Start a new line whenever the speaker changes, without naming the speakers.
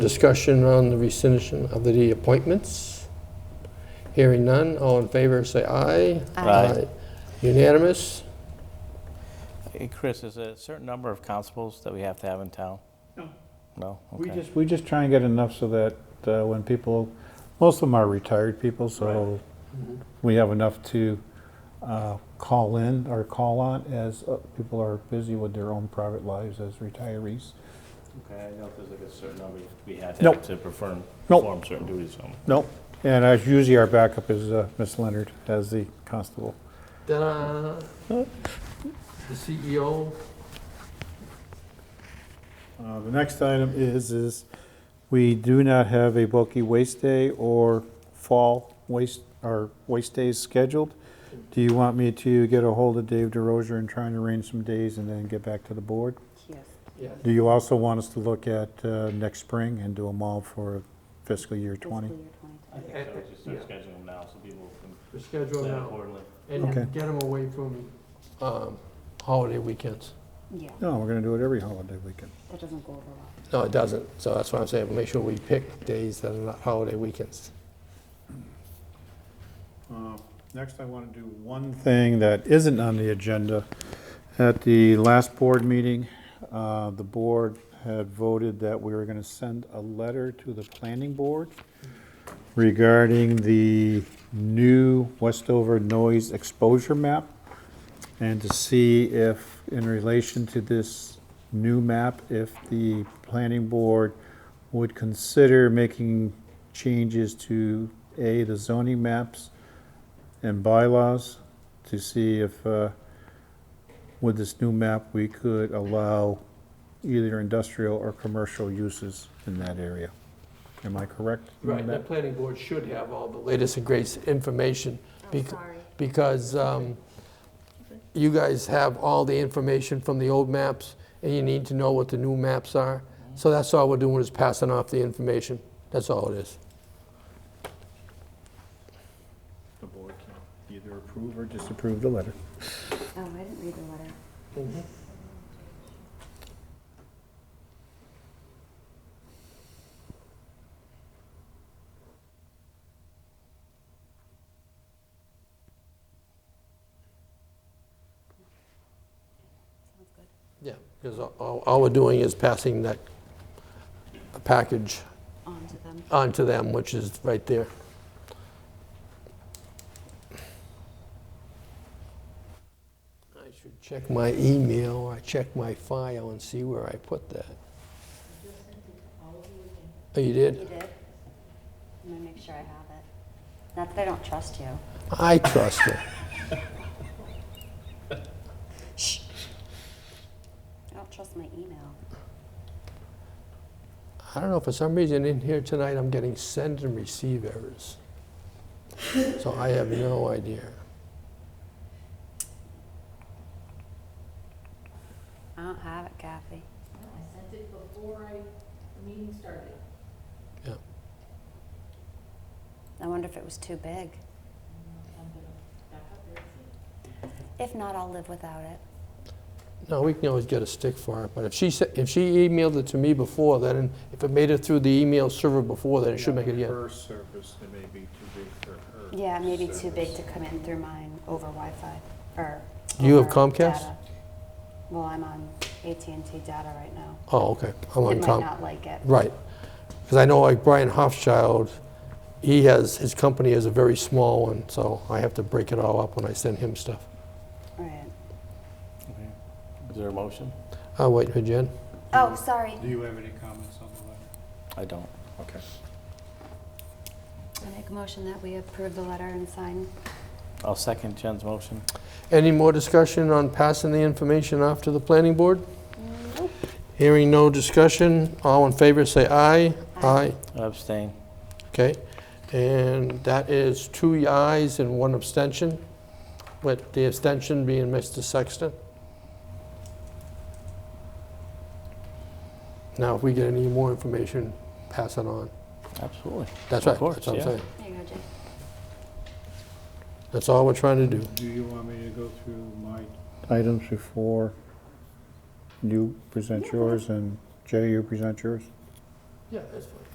Discussion on the rescission of the appointments. Hearing none, all in favor, say aye.
Aye.
Unanimous?
Hey, Chris, is there a certain number of constables that we have to have in town? No. No?
We
Okay.
just, we just try and get enough so that uh, when people, most of them are retired people, so we have enough to uh, call in or call on as uh, people are busy with their own private lives as retirees.
Okay, I know if there's like a certain number we had
to have Nope.
to perform,
Nope.
certain duties, so.
Nope, and as usually our backup is uh, Miss Leonard as the constable.
Ta-da! The E CEO.
Uh, The next item is, is we do not have a bulky waste day or fall waste, or waste days scheduled. Do you want me to get a hold of Dave DeRozier and try and arrange some days and then get back to the board?
Yes.
Yes.
Do you also want us to look at uh, next spring and do them all for fiscal year 20?
Fiscal year 2020.
I think so, just start scheduling them now so people
The
can
schedule
plan
now,
accordingly.
and
Okay.
get them away from um, holiday weekends.
Yeah,
No, we're going to do it every holiday weekend.
that doesn't go over well.
No, it doesn't, so that's why I'm saying, make sure we pick days that are not holiday weekends.
Uh, Next, I want to do one thing that isn't on the agenda. At the last board meeting, uh, the board had voted that we were going to send a letter to the planning board regarding the new Westover noise exposure map and to see if, in relation to this new map, if the planning board would consider making changes to, A, the zoning maps, and bylaws to see if, uh, with this new map, we could allow either industrial or commercial uses in that area. Am I correct? in
Right, the
that?
planning board should have all the latest and greatest information. bec- Because um, you guys have all the information from the old maps, and you need to know what the new maps are. So that's all we're doing is passing off the information. That's all it is.
The board can either approve or disapprove the letter.
Oh, I didn't read the letter. Sounds good.
Yeah, because all, all we're doing is passing that package
On to them.
onto them, which is right there. I should check my email, or check my file and see where I put that. Oh, you
You
did?
did? I'm gonna make sure I have it. Not that I don't trust you.
I trust it.
I don't trust my email.
I don't know, for some reason in here tonight, I'm getting send and receive errors. So I have no idea.
I don't have it, Kathy.
I sent it before I, the meeting started.
I wonder if it was too big.
I'm gonna back up there and see.
If not, I'll live without it.
No, we can always get a stick for it, but if she, sa- if she emailed it to me before, then if it made it through the email server before, then it should make it again.
Her service, it may be too big for her.
Yeah, maybe too big to come in through mine over Wi-Fi or.
Do you have
over
Comcast?
data. Well, I'm on AT&T data right now.
Oh, okay, I'm on
It might
com.
not like it.
Right. Because I know like Brian Hofschild, he has, his company is a very small one, so I have to break it all up when I send him stuff.
Right.
Is there a motion?
I'll wait for Jen.
Oh, sorry.
Do you have any comments on the letter?
I don't.
Okay.
I make a motion that we approve the letter and sign.
I'll second Jen's motion.
Any more discussion on passing the information off to the planning board? Hearing no discussion, all in favor say aye.
Aye.
I Abstain.
Okay, and that is two ayes and one abstention, with the abstention being Mr. Sexton. Now, if we get any more information, pass it on.
Absolutely.
That's right, that's
Of course,
what I'm
yeah.
saying.
There you go, Jay.
That's all we're trying to do.
Do you want me to go through my items before you present yours and Jay, you present yours?
Yeah, that's fine.